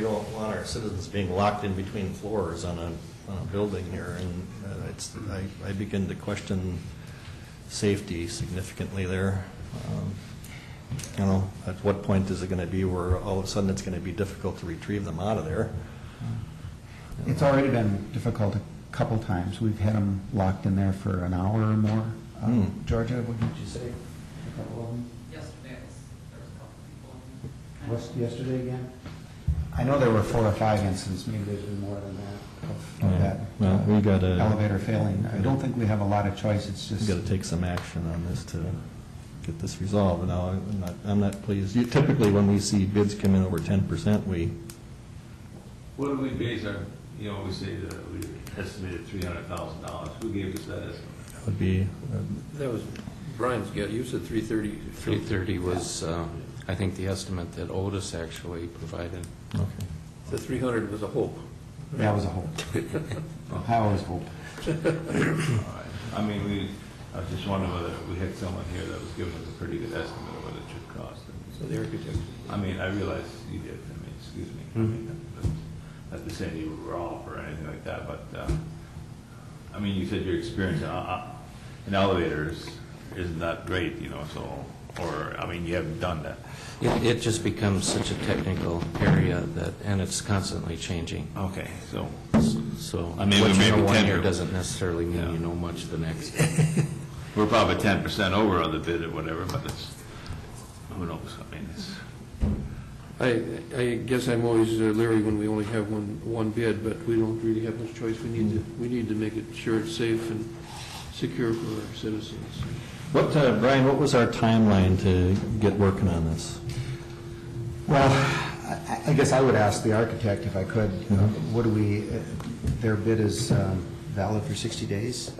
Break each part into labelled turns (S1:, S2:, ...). S1: want our citizens being locked in between floors on a, on a building here, and uh, it's, I, I begin to question safety significantly there. Um, You know, at what point is it going to be where all of a sudden it's going to be difficult to retrieve them out of there?
S2: It's already been difficult a couple times. We've had them locked in there for an hour or more. Uh,
S1: Hmm.
S2: Georgia, what did you say? A couple of them?
S3: Yesterday, it was, there was a couple of people. in there.
S2: What's yesterday again? I know there were four or five incidents, maybe there's been more than that, of- of that.
S1: Um, Well, we got
S2: uh,
S1: to,
S2: Oh, Elevator failing. I don't think we have a lot of choice, it's
S1: we
S2: just,
S1: got to take some action on this to get this resolved. Now, I'm not, I'm not pleased. You- Typically, when we see bids come in over ten percent, we,
S4: What do we base our, you know, we say that we estimated three hundred thousand dollars, who gave us that estimate?
S1: that would be, uh,
S5: That was Brian's guess, you said 330.
S6: 330 was, uh, I think, the estimate that Otis actually provided.
S1: okay.
S5: The 300 was a hope.
S2: that was a hope. I always hope.
S4: All right. I mean, we, I was just wondering whether we had someone here that was giving us a pretty good estimate of what it should cost.
S5: So the architect,
S4: I mean, I realize you did, I mean, excuse me, I mean, that's- not to say you were off or anything like that, but, uh, I mean, you said your experience in, uh, in elevators isn't that great, you know, so, or, I mean, you haven't done that.
S6: It it just becomes such a technical area that, and it's constantly changing,
S4: Okay, so,
S6: so
S4: I
S6: what
S4: mean, we may
S6: you
S4: be
S6: know one year
S4: tender.
S6: doesn't necessarily mean
S4: Yeah.
S6: you know much the next.
S4: We're probably ten percent over on the bid or whatever, but it's, who knows, I mean, it's,
S5: I, I guess I'm always uh, leery when we only have one, one bid, but we don't really have much choice. We need to, we need to make it sure it's safe and secure for our citizens.
S1: What, uh, Brian, what was our timeline to get working on this?
S2: Well, I- I guess I would ask the architect if I could, uh, what do we, uh, their bid is um, valid for 60 days?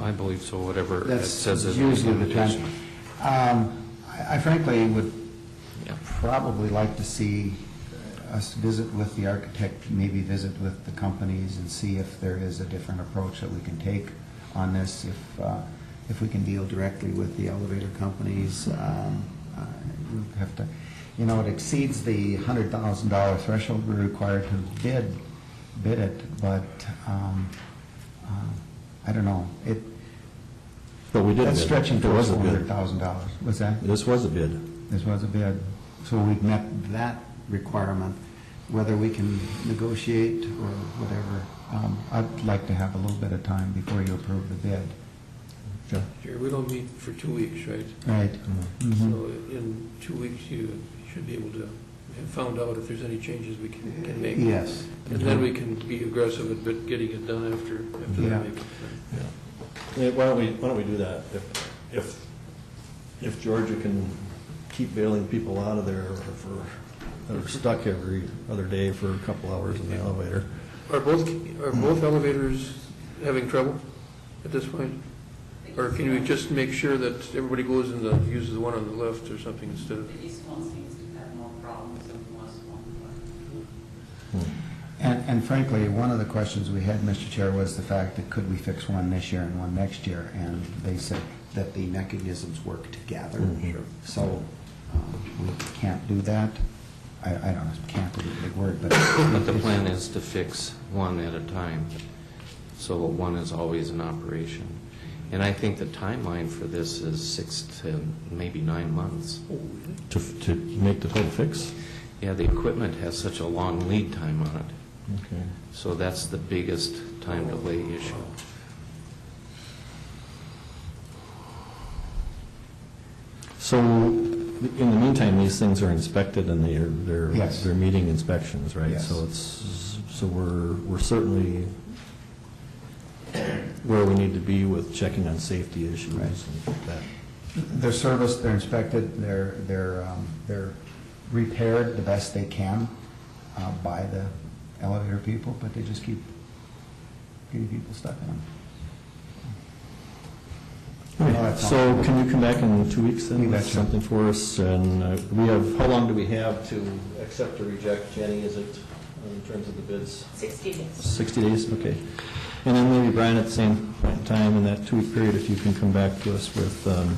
S6: I believe so, whatever it
S2: That's
S6: says is
S2: usually the time. Um, I I frankly would
S6: Yeah.
S2: probably like to see us visit with the architect, maybe visit with the companies and see if there is a different approach that we can take on this, if, uh, if we can deal directly with the elevator companies. um, uh, We have to, you know, it exceeds the hundred thousand dollar threshold we're required to bid, bid it, but, um, uh, I don't know. It,
S1: But we did
S2: that's
S1: bid.
S2: stretching
S1: There
S2: towards
S1: was a
S2: four hundred
S1: bid.
S2: thousand dollars. What's that?
S1: This was a bid.
S2: This was a bid. So we've met that requirement, whether we can negotiate or whatever. um, I'd like to have a little bit of time before you approve the bid.
S5: Jerry, we don't meet for two weeks, right?
S2: Right.
S5: So
S2: Mhm.
S5: in two weeks, you should be able to have found out if there's any changes we can can make.
S2: Yes.
S5: And then we can be aggressive at bit- getting it done after, after
S2: Yeah.
S5: that. maybe.
S1: Yeah, Why don't we, why don't we do that? If, if, if Georgia can keep bailing people out of there for, that are stuck every other day for a couple hours in the elevator.
S5: Are both, are both elevators having trouble at this point? Or can we just make sure that everybody goes and uh, uses the one on the left or something instead of?
S3: The east one seems to have more problems than the west one, but.
S1: Hmm.
S2: And and frankly, one of the questions we had, Mr. Chair, was the fact that could we fix one this year and one next year? And they said that the mechanisms work together.
S6: Mm-hmm.
S1: Sure.
S2: So um, we can't do that. I I don't know, can't is a big word, but
S6: But the plan is to fix one at a time, so that one is always in operation. And I think the timeline for this is six to maybe nine months.
S1: To, to make the total fix?
S6: Yeah, the equipment has such a long lead time on it.
S1: Okay.
S6: So that's the biggest time delay issue.
S1: So, in the meantime, these things are inspected and they're, they're.
S2: Yes.
S1: They're meeting inspections, right?
S2: Yes.
S1: So it's, so we're, we're certainly where we need to be with checking on safety issues
S2: Right.
S1: and that.
S2: They're serviced, they're inspected, they're, they're, um, they're repaired the best they can uh, by the elevator people, but they just keep getting people stuck in them. Well, that's
S1: So
S2: all.
S1: can you come back in two weeks
S2: You
S1: then with
S2: betcha.
S1: something for us? And uh, we have, how long do we have to accept or reject, Jenny, is it, in terms of the bids?
S3: Sixty days.
S1: 60 days, okay. And then maybe, Brian, at the same point in time, in that two-week period, if you can come back to us with um,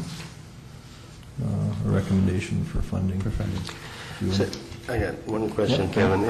S1: uh, a recommendation for funding. For funding.
S7: So, I got one question, Kevin.